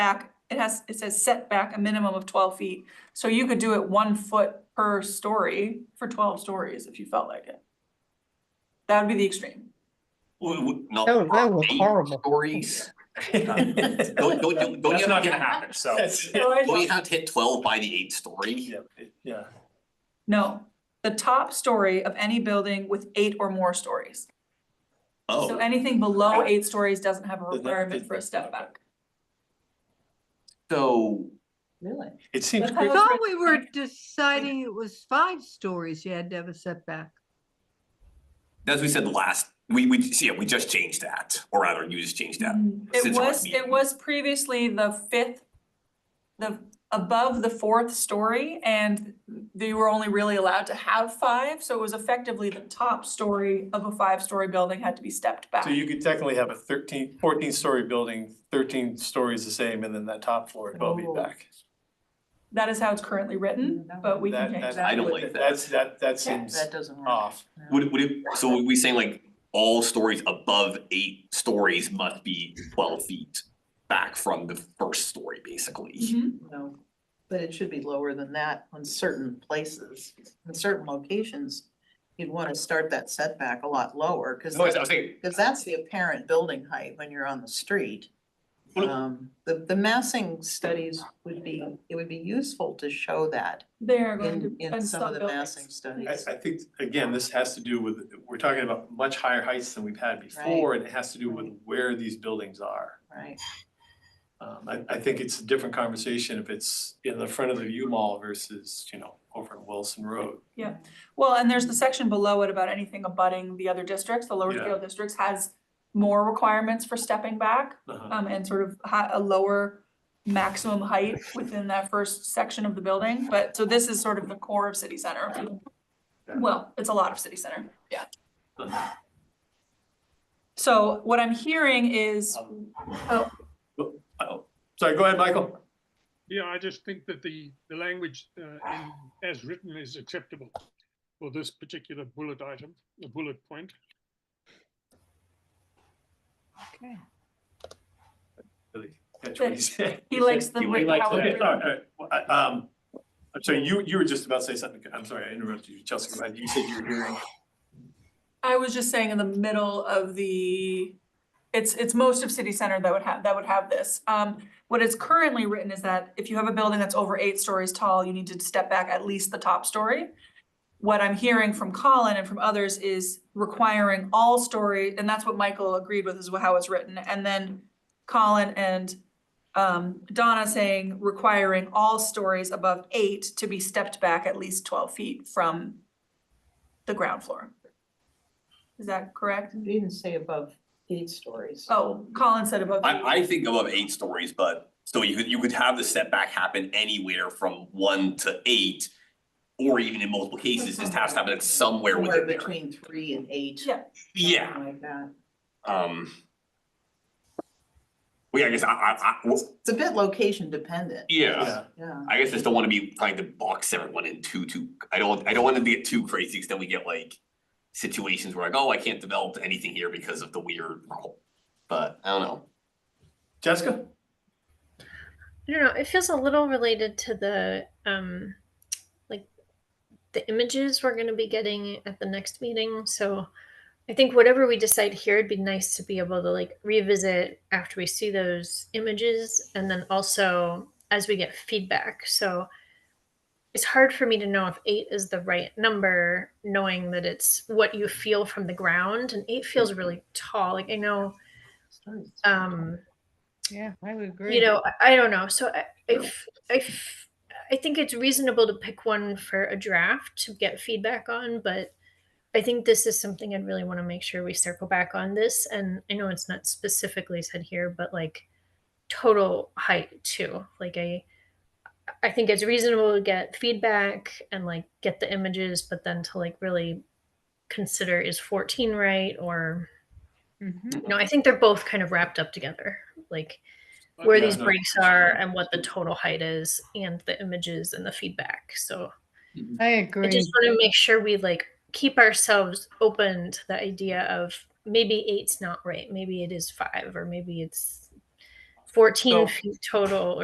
back, it has, it says setback a minimum of twelve feet. So you could do it one foot per story for twelve stories if you felt like it. That would be the extreme. w- w- No. That was- that was eight horrible. Stories. Um, Don't, don't, don't- don't That's you not have, gonna happen, so. don't you have to hit twelve by the eighth story? Yeah, it- yeah, No, the top story of any building with eight or more stories. So Oh, anything below eight stories doesn't have a Does that- requirement does- for a step back. so, Really? it seems That's crazy. how- Thought we were deciding it was five stories you had to have a setback. as we said last, we, we, yeah, we just changed that, or rather, you just changed that. Mm, It since our was, it meeting. was previously the fifth, the, above the fourth story, and they were only really allowed to have five, so it was effectively the top story of a five-story building had to be stepped back. So you could technically have a 13 14 story building, thirteen stories the same, and then that top floor would all be Oh. back. That is how it's currently written, Mm, that but we can That- change that- that. I don't like that. That's, that, that seems, That doesn't work. off. No. Would, would it, so would we saying like all stories above eight stories must be twelve feet back from the first story, basically? Mhm. No, but it should be lower than that on certain places, in certain locations. You'd wanna start that setback a lot lower, cause, No, I was- I was thinking, cause that's the apparent building height when you're on the street. Well- Um, the, the massing studies would be, it would be useful to show that They're going in, to, in and some of some the massing buildings. studies. I, I think, again, this has to do with, we're talking about much higher heights than we've had before, and it has to do with where these buildings are. Right, Um, I, I think it's a different conversation if it's in the front of the U-Mall versus, you know, over on Wilson Road. Well, and there's the section below it about anything abutting the other districts, the lower Yeah. scale districts has more requirements for stepping back. Uh-huh. um, and sort of ha- a lower maximum height within that first section of the building, but, so this is sort of the core of city center. Well, it's a lot of city center, yeah. Uh-huh. So what I'm hearing is, Oh, Sorry, go ahead, Michael. Yeah, I just think that the, the language uh, in, as written is acceptable for this particular bullet item, the bullet point. Okay. Really catch what he said. he likes the. He way- likes how that. Okay, it- all right, all right. Well, I- um, I'm sorry, you, you were just about to say something. I'm sorry, I interrupted you. Chelsea, go ahead. You said you were hearing. I was just saying in the middle of the, it's, it's most of city center that would have, that would have this. Um, what is currently written is that if you have a building that's over eight stories tall, you need to step back at least the top story. What I'm hearing from Colin and from others is requiring all story, and that's what Michael agreed with is how it's written. And then Colin and um, Donna saying requiring all stories above eight to be stepped back at least twelve feet from the ground floor. Is that correct? you didn't say above eight stories. Oh, Colin said above. eight. I, I think above eight stories, but so you could, you could have the setback happen anywhere from one to eight. Or even in multiple cases, just has to happen at somewhere Somewhere within there. between three and eight. Yeah. Yeah, Something like that. um. Well, yeah, I guess I, I, I, well, It's a bit location dependent, yeah, Yeah, yeah. I guess I just don't wanna be trying to box everyone in too, too, I don't, I don't wanna get too crazy, cause then we get like. Situations where like, oh, I can't develop anything here because of the weird rule, but I don't know. Jessica? I don't know. It feels a little related to the um, like the images we're going to be getting at the next meeting. So I think whatever we decide here, it'd be nice to be able to like revisit after we see those images, and then also as we get feedback. So it's hard for me to know if eight is the right number, knowing that it's what you feel from the ground, and eight feels really tall. Like I know. Um, Yeah, I would agree. you know I- i don't know so i I f- I f- I think it's reasonable to pick one for a draft to get feedback on but i think this is something i'd really want to make sure we circle back on this and i know it's not specifically said here but like total height too like i i think it's reasonable to get feedback and like get the images but then to like really consider is 14 right or Mhm. you know i think they're both kind of wrapped up together like Uh, where yeah, these no, breaks are and what the total height is and the images and the feedback. So I I agree. just want to make sure we like keep ourselves open to the idea of maybe eight's not right, maybe it is five, or maybe it's fourteen So- feet total